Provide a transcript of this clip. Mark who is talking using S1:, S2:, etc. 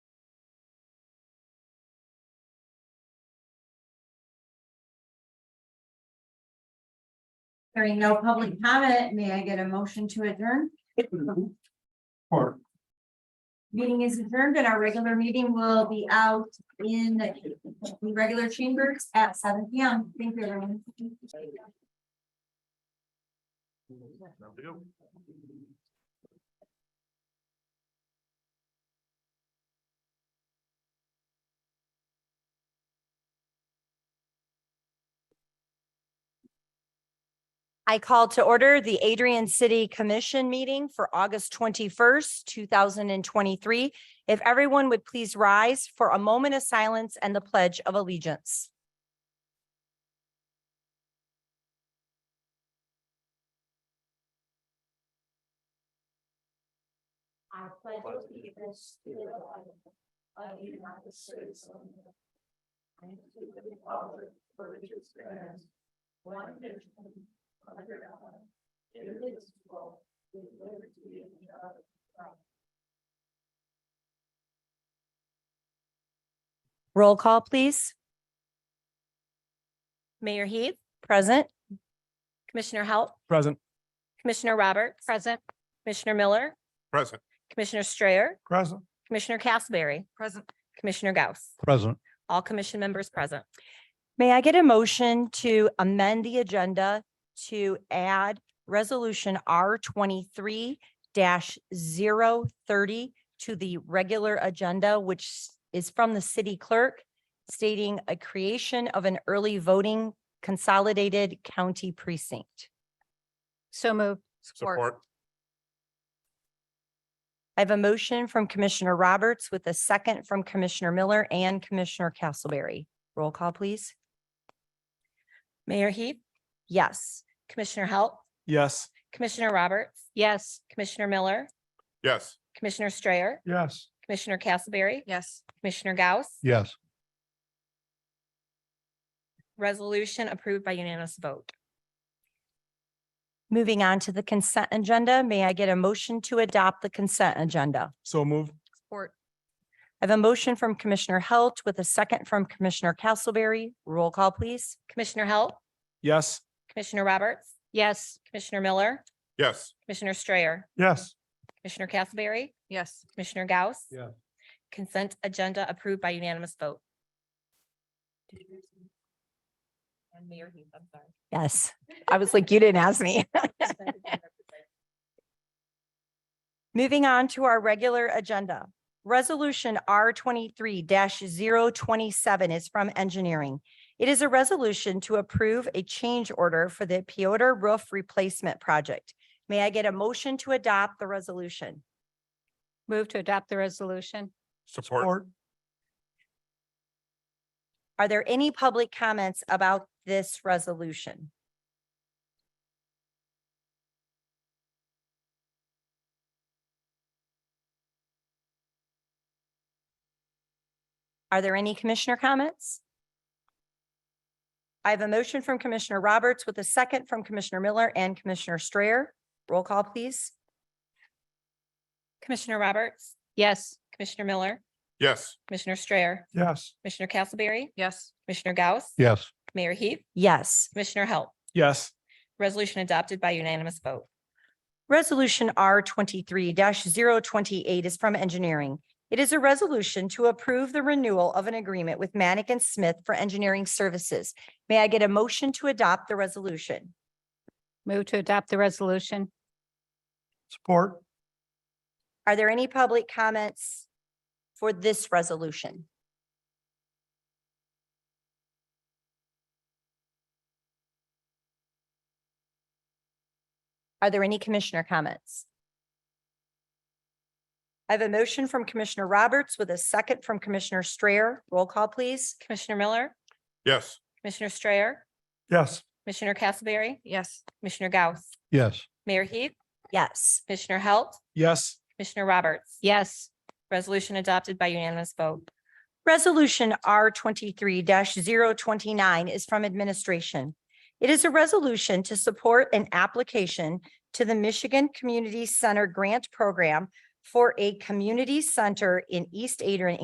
S1: Hearing no public comment, may I get a motion to adjourn?
S2: Or
S1: Meeting is adjourned and our regular meeting will be out in the regular chambers at seven P M. Thank you, everyone.
S3: I call to order the Adrian City Commission meeting for August twenty-first, two thousand and twenty-three. If everyone would please rise for a moment of silence and the pledge of allegiance. I pledge allegiance to the flag of the United States of America and to the republic for which it stands, one nation, under God, indivisible, with liberty and justice for all. Roll call, please. Mayor Heath, present. Commissioner Halt,
S4: Present.
S3: Commissioner Roberts. Present. Commissioner Miller,
S2: present.
S3: Commissioner Strayer,
S2: Present.
S3: Commissioner Castleberry. Present. Commissioner Gauss.
S4: Present.
S3: All commission members present. May I get a motion to amend the agenda to add resolution R twenty-three 30 to the regular agenda, which s- is from the city clerk stating a creation of an early voting consolidated county precinct.
S5: So moved.
S2: Support.
S3: I have a motion from Commissioner Roberts with a second from Commissioner Miller and Commissioner Castleberry. Roll call, please.
S5: Mayor Heath,
S3: Yes.
S5: Commissioner Halt,
S4: Yes.
S5: Commissioner Roberts,
S3: Yes.
S5: Commissioner Miller,
S2: Yes.
S5: Commissioner Strayer,
S4: Yes.
S5: Commissioner Castleberry,
S3: Yes.
S5: Commissioner Gauss.
S4: Yes.
S5: Resolution approved by unanimous vote.
S3: Moving on to the consent agenda, may I get a motion to adopt the consent agenda?
S4: So moved.
S5: Support.
S3: I have a motion from Commissioner Halt with a second from Commissioner Castleberry. Roll call, please.
S5: Commissioner Halt,
S4: Yes.
S5: Commissioner Roberts. Yes. Commissioner Miller,
S2: Yes.
S5: Commissioner Strayer,
S4: Yes.
S5: Commissioner Castleberry. Yes. Commissioner Gauss.
S4: Yeah.
S5: Consent agenda approved by unanimous vote. And Mayor Heath, I'm sorry.
S3: Yes, I was like, you didn't ask me. Moving on to our regular agenda. Resolution R twenty-three 27 is from engineering. It is a resolution to approve a change order for the Piotr Roof Replacement Project. May I get a motion to adopt the resolution?
S6: Move to adopt the resolution.
S2: Support.
S3: Are there any public comments about this resolution? Are there any commissioner comments? I have a motion from Commissioner Roberts with a second from Commissioner Miller and Commissioner Strayer. Roll call, please.
S5: Commissioner Roberts,
S6: Yes.
S5: Commissioner Miller,
S2: Yes.
S5: Commissioner Strayer,
S4: Yes.
S5: Commissioner Castleberry,
S6: Yes.
S5: Commissioner Gauss.
S4: Yes.
S5: Mayor Heath,
S3: Yes.
S5: Commissioner Halt.
S4: Yes.
S5: Resolution adopted by unanimous vote.
S3: Resolution R twenty-three 28 is from engineering. It is a resolution to approve the renewal of an agreement with Manick and Smith for engineering services. May I get a motion to adopt the resolution?
S6: Move to adopt the resolution.
S4: Support.
S3: Are there any public comments for this resolution? Are there any commissioner comments? I have a motion from Commissioner Roberts with a second from Commissioner Strayer. Roll call, please.
S5: Commissioner Miller,
S2: Yes.
S5: Commissioner Strayer,
S4: Yes.
S5: Commissioner Castleberry,
S6: Yes.
S5: Commissioner Gauss,
S4: Yes.
S5: Mayor Heath,
S3: Yes.
S5: Commissioner Halt,
S4: Yes.
S5: Commissioner Roberts.
S6: Yes.
S5: Resolution adopted by unanimous vote.
S3: Resolution R twenty-three 29 is from administration. It is a resolution to support an application to the Michigan Community Center Grant Program for a community center in East Adrian,